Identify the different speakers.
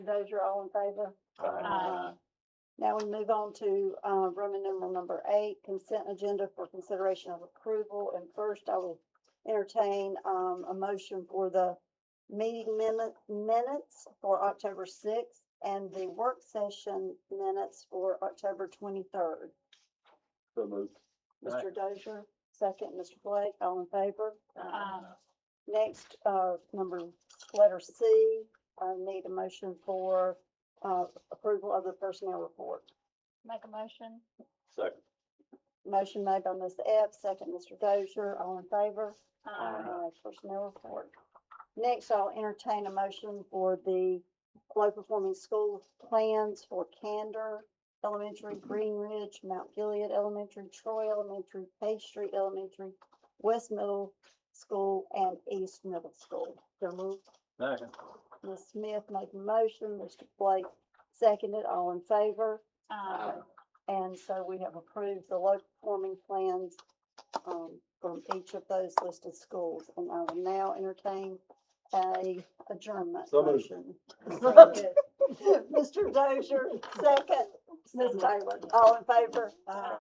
Speaker 1: Those are all in favor?
Speaker 2: Aye.
Speaker 1: Now we move on to uh, Roman numeral number eight, consent agenda for consideration of approval. And first, I will entertain um, a motion for the meeting minute- minutes for October 6th and the work session minutes for October 23rd.
Speaker 2: So moved.
Speaker 1: Mr. Dozier, second. Mr. Blake, all in favor?
Speaker 2: Aye.
Speaker 1: Next, uh, number, letter C, I need a motion for, uh, approval of the personnel report.
Speaker 3: Make a motion.
Speaker 2: Second.
Speaker 1: Motion made by Ms. Epps, second Mr. Dozier, all in favor?
Speaker 3: Uh,
Speaker 1: Uh, Personnel report. Next, I'll entertain a motion for the low-performing school plans for Candor Elementary, Green Ridge, Mount Gilead Elementary, Troy Elementary, Page Street Elementary, West Middle School, and East Middle School. So moved.
Speaker 2: Second.
Speaker 1: Ms. Smith made the motion, Mr. Blake seconded, all in favor.
Speaker 3: uh,
Speaker 1: And so we have approved the low performing plans um, from each of those listed schools. And I will now entertain a adjournment
Speaker 2: So moved.
Speaker 1: motion. Mr. Dozier, second. Ms. Taylor, all in favor? Aye.